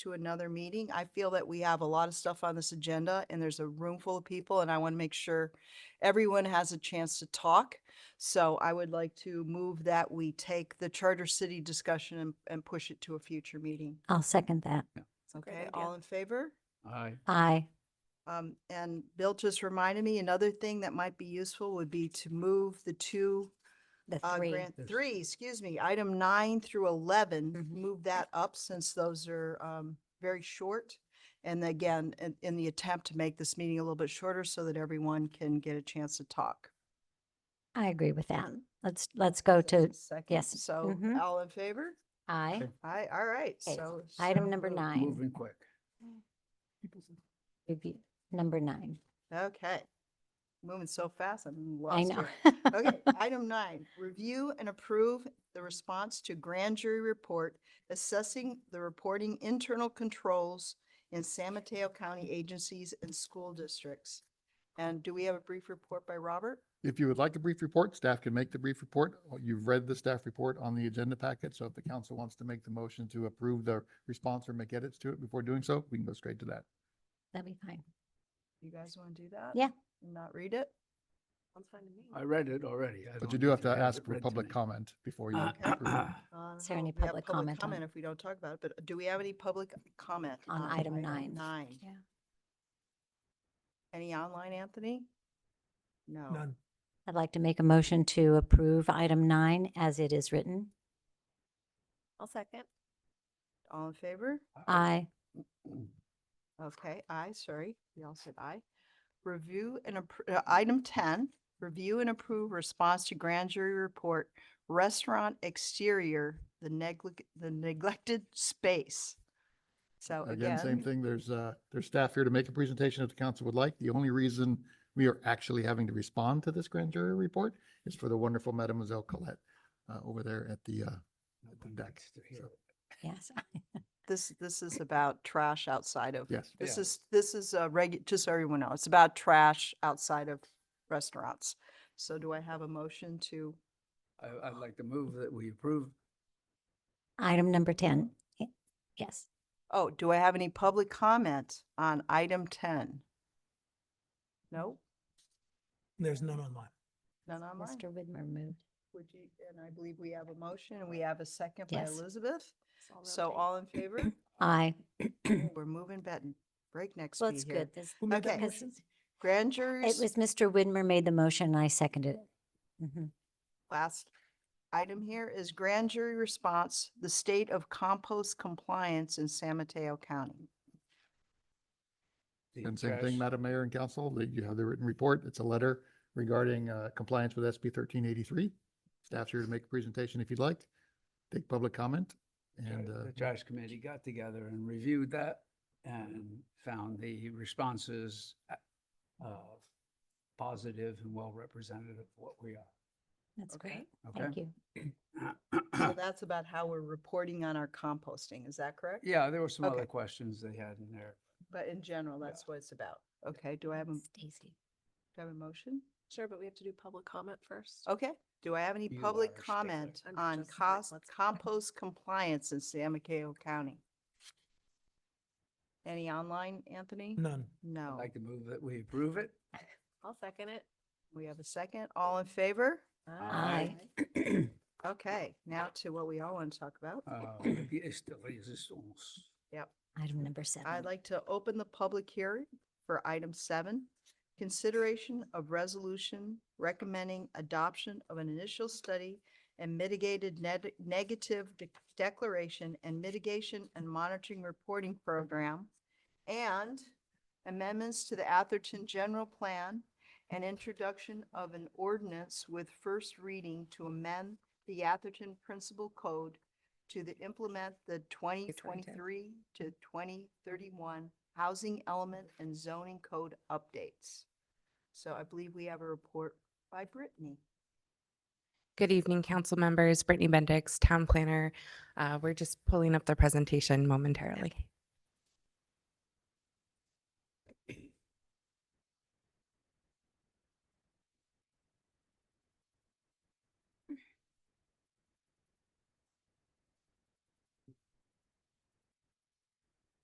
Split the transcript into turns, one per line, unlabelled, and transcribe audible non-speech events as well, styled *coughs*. to another meeting. I feel that we have a lot of stuff on this agenda and there's a room full of people and I want to make sure everyone has a chance to talk. So I would like to move that we take the charter city discussion and, and push it to a future meeting.
I'll second that.
Great
Okay,
idea.
all in favor?
Aye.
Aye.
Um, and Bill just reminded me, another thing that might be useful would be to move the two,
The
uh,
three.
grant,
Yes.
three, excuse me, item nine through eleven,
Mhm.
move that up since those are, um, very short. And again, in, in the attempt to make this meeting a little bit shorter so that everyone can get a chance to talk.
I agree with that. Let's, let's go Oh, to
Second,
yes,
So
mhm.
all in favor?
aye.
Okay.
Aye, all right,
Okay,
so. so
Item number
moved.
nine,
Moving quick.
review, number nine.
Okay. Moving so fast, I'm lost.
I know.
here.
*laughs*
Okay, item nine, review and approve the response to grand jury report assessing the reporting internal controls in San Mateo County agencies and school districts. And do we have a brief report by Robert?
If you would like a brief report, staff can make the brief report. Oh, You've read the staff report on the agenda packet, so if the council wants to make the motion to approve the response or make edits to it before doing so, we can go straight to that.
That'd be fine.
You guys want to do that?
Yeah.
And Not read it?
Sounds fine to me.
I read it already. I
But you
don't
do have
need
to
it
ask for
read to
public
me.
comment before you
Uh, *coughs*
approve it.
Uh,
Is there any
we have
public comment on-
Comment if we don't talk about it, but do we have any public comment?
On item nine.
Uh, Nine.
Yeah.
Any online, Anthony? No. *coughs*
None.
I'd like to make a motion to approve item nine as it is written.
I'll second.
All in favor?
Aye.
Mm,
Okay, aye, sorry, we all said aye. Review and, appro- uh, item ten, review and approve response to grand jury report, restaurant exterior, the neglect, the neglected space. So
Again, same
oh, again,
thing. There's, uh, there's staff here to make a presentation if the council would like. The only reason we are actually having to respond to this grand jury report is for the wonderful Mademoiselle Colette, uh, over there at the, uh, at the deck. So,
Yes. *laughs*
this, this is about trash outside of,
Yes.
this
Yeah.
is, this is a regu, just so everyone knows, it's about trash outside of restaurants. So do I have a motion to,
I, I'd like to move that we approve.
Item number 10. Y- Yes.
oh, do I have any public comment on item ten? No,
There's none online.
none online?
Mr. Widmer moved.
Would you, and I believe we have a motion and we have a second by
Yes.
Elizabeth.
It's real
So
time.
all in favor?
*clears throat* Aye.
Ooh, We're moving bet breakneck
Well,
speed
it's
here.
good. This-
Who made that
Okay.
motion?
Grand
It
jury's
was Mr. Widmer made the motion and I seconded it. Mhm.
last item here is grand jury response, the state of compost compliance in San Mateo
*clears throat*
County.
the
And same
trash.
thing, Madam Mayor and Council, that you have the written report. It's a letter regarding uh, compliance with SB thirteen eighty-three. Staff's here to make a presentation if you'd like. Take public comment
Tra-
and uh,
The trash committee got together and reviewed that and found the responses uh, uh, positive and well representative of what we are.
That's
Okay.
great. Thank you.
So
Okay?
that's about how we're reporting on our composting, is that correct?
*coughs* Yeah, there were some
Okay.
other questions they had in there.
But in general,
Yeah.
that's what it's about. Okay, do I have a, do
Stacy.
I have a motion?
Sure, but we have to do public comment first.
Okay, do I have any
You
public
are a stickler.
comment
I'm
on
just like,
cost,
let's-
compost compliance in San Mateo County? Any online, Anthony?
None.
I'd
Oh.
No.
like to move that we approve it.
I'll second it.
We have a second. All in favor?
Aye.
Okay, now to what we all want to talk about.
Uh, the instalações.
Item number seven.
I'd like to open the public hearing for item seven. Consideration of resolution recommending adoption of an initial study and mitigated neg- negative de- declaration and mitigation and monitoring reporting program and amendments to the Atherton general plan and introduction of an ordinance with first reading to amend the Atherton principal code to the implement the twenty twenty-three to twenty thirty-one housing element and zoning code updates. So I believe we have a report by Brittany.
Good evening, council members. Brittany Bendix, town planner. Uh, We're just pulling up the presentation momentarily.